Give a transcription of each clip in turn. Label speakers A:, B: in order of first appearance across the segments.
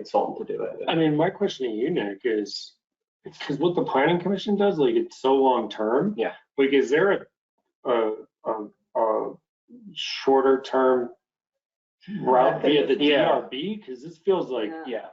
A: consultant to do it.
B: I mean, my question to you, Nick, is, because what the planning commission does, like, it's so long-term.
A: Yeah.
B: Like, is there a, a, a, a shorter-term route via the
A: Yeah.
B: DRB? Because this feels like,
C: Yeah.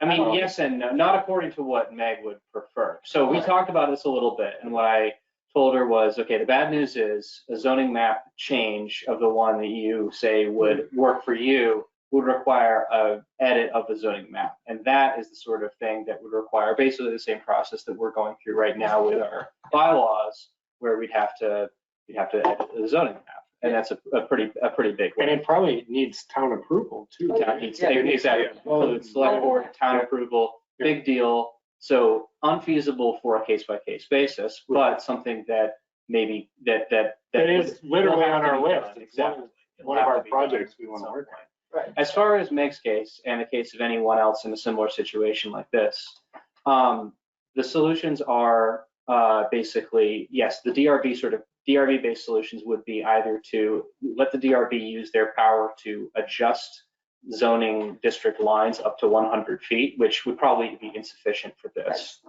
A: Yeah, I mean, yes and no, not according to what Meg would prefer. So we
B: Right.
A: talked about this a little bit, and what I told her was, okay, the bad news is a zoning map change of the one that you say would work for you would require a edit of the zoning map. And that is the sort of thing that would require basically the same process that we're going through right now with our bylaws, where we'd have to, we'd have to edit the zoning map. And that's a, a pretty, a pretty big one.
B: and it probably needs town approval too.
C: Oh,
B: um,
C: Yeah,
A: Town- it's- Exactly.
B: Oh,
A: So the select board, town approval, big deal. So unfeasible for a case by case basis, but something that maybe that, that.
B: That is literally
A: will have
B: on
A: to
B: our
A: be done.
B: list. It's
A: Exactly.
B: one,
A: It'll
B: one of
A: have to
B: our
A: be done
B: projects we
A: at
B: want to
A: some
B: work
A: point.
B: on.
C: Right.
A: As far as Meg's case and the case of anyone else in a similar situation like this, um, the solutions are uh, basically, yes, the DRB sort of, DRB-based solutions would be either to let the DRB use their power to adjust zoning district lines up to 100 feet, which would probably be insufficient for this.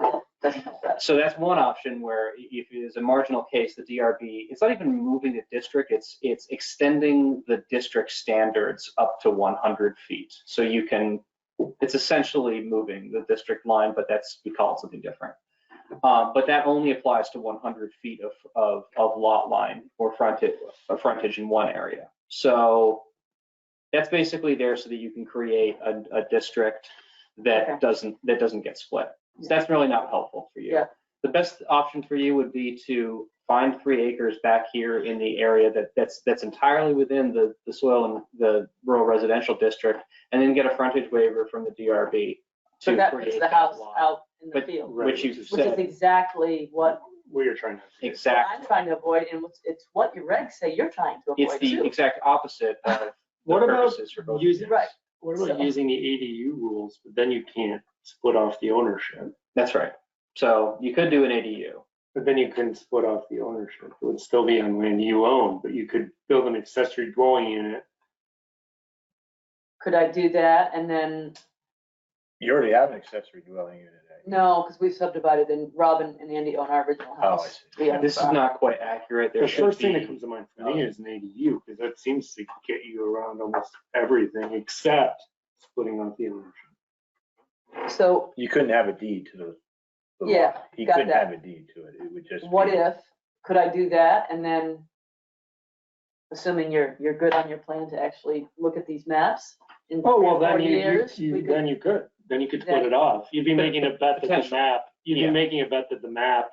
C: Doesn't help that.
A: So that's one option where i- if it is a marginal case, the DRB, it's not even moving the district, it's, it's extending the district standards up to 100 feet. So you can, it's essentially moving the district line, but that's, we call it something different. Um, But that only applies to 100 feet of, of, of lot line or frontage, or frontage in one area. So that's basically there so that you can create a, a district
C: Okay.
A: that doesn't, that doesn't get split. So that's really not helpful for you.
C: Yeah.
A: The best option for you would be to find three acres back here in the area that, that's, that's entirely within the, the soil and the rural residential district, and then get a frontage waiver from the DRB
C: So
A: to
C: that puts
A: create
C: the
A: that
C: house
A: lot,
C: out in the
A: But-
C: field,
B: Right,
A: which you
B: which is-
C: which is
A: said,
C: exactly what
B: We are trying to.
C: I'm
A: exactly.
C: trying to avoid, and it's- it's what your regs say you're trying to
A: It's
C: avoid
A: the
C: too.
A: exact opposite of the
B: What about
A: purposes for both.
B: using,
C: Right.
B: what about
C: So-
B: using the ADU rules, but then you can't split off the ownership?
A: That's right. So you could do an ADU.
B: But then you couldn't split off the ownership. It would still be on land you own, but you could build an accessory dwelling unit.
C: Could I do that? And then,
D: You already have an accessory dwelling unit. eh?
C: no, because we subdivided and Robin and Andy own our original
D: Oh, I
C: house.
D: see.
C: We own
A: This is
C: five.
A: not quite accurate. There
B: The
A: should
B: first thing that
A: be,
B: comes to mind for me is an ADU, because that seems to get you around almost everything except splitting off the ownership.
C: So
D: You couldn't have a deed to the. the lot.
C: Yeah,
D: He
C: got
D: couldn't
C: that.
D: have a deed to it. It would just.
C: what
D: be-
C: if, could I do that? And then, assuming you're, you're good on your plan to actually look at these maps in three
B: Oh, well,
C: or
B: then
C: four
B: you- you,
C: years. we
B: you,
C: could-
B: then you could, then you could split it off. You'd be making a bet that the
A: Potential.
B: map, you'd be
A: Yeah.
B: making a bet that the map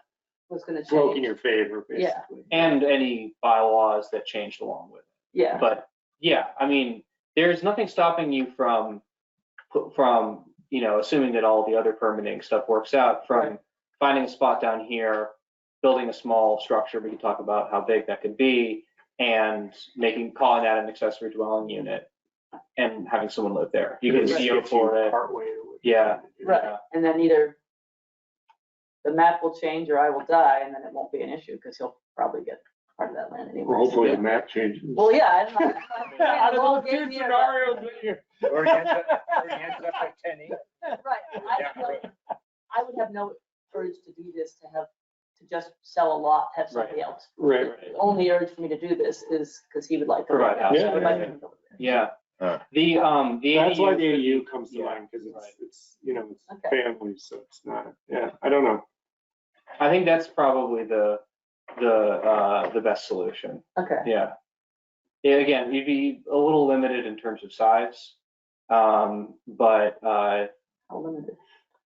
C: Was gonna
B: broke in
C: change.
B: your favor,
C: Yeah.
B: basically.
A: and any bylaws that changed along with it.
C: Yeah.
A: But yeah, I mean, there's nothing stopping you from, from, you know, assuming that all the other permitting stuff works out, from finding a spot down here, building a small structure, we can talk about how big that could be, and making, calling that an accessory dwelling unit and having someone live there. You
B: It
A: can
B: just
A: CO
B: gets
A: for
B: you
A: it.
B: partway to what you're
A: Yeah.
B: trying to do.
C: Right. And then either the map will change or I will die and then it won't be an issue because he'll probably get part of that land
B: Well,
C: anyway.
B: hopefully the map changes.
C: Well, yeah, I don't know.
B: Out
C: Yeah,
B: of
C: well,
B: those two
C: yeah,
B: scenarios that you-
D: Or he ends up, or he ends up at ten acres.
C: Right, I feel like I would have no urge to do this, to have, to just sell a lot, have somebody else.
B: Right, right.
C: The only urge for me to do this is because he would like to.
A: Provide
C: live there, so I
B: housing.
C: would like him to live there.
A: Yeah.
D: Huh.
A: The, um, the.
B: That's why
A: ADU
B: the AU comes to
A: Yeah,
B: mind, because it's,
A: right.
B: it's, you know, it's
C: Okay.
B: family, so it's not, yeah, I don't know.
A: I think that's probably the, the, uh, the best solution.
C: Okay,
A: Yeah. Yeah, again, you'd be a little limited in terms of size. Um, but, uh,
C: how limited.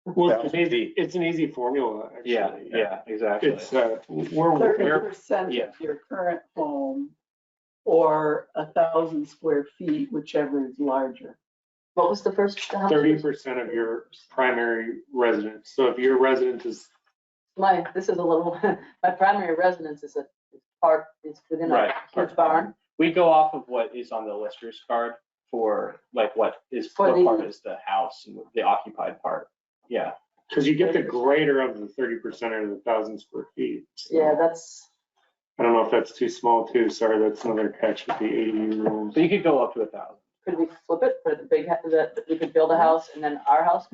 B: Well,
D: That
B: it's
D: was
B: an easy,
D: deep.
B: it's an easy formula, actually.
A: yeah, yeah, exactly.
B: It's, uh, we're,
E: thirty
B: we're,
E: percent
A: yeah.
E: of your current home or a thousand square feet, whichever is larger.
C: What was the first? how much
B: thirty
C: was-
B: percent of your primary residence, so if your residence is,
C: My, this is a little, my primary residence is a is park, is within a
A: Right,
C: huge barn.
A: We go off of what is on the lister's card for like what is,
C: For
A: what
C: the-
A: part is the house and the occupied part. Yeah,
B: because you get the greater of the thirty percent or the thousand square feet. so
C: Yeah, that's,
B: I don't know if that's too small too, sorry, that's another catch with the AU rules.
A: so you could go up to a thousand.
C: could could we flip it, put the big, ha- that, that we could build a house and then our house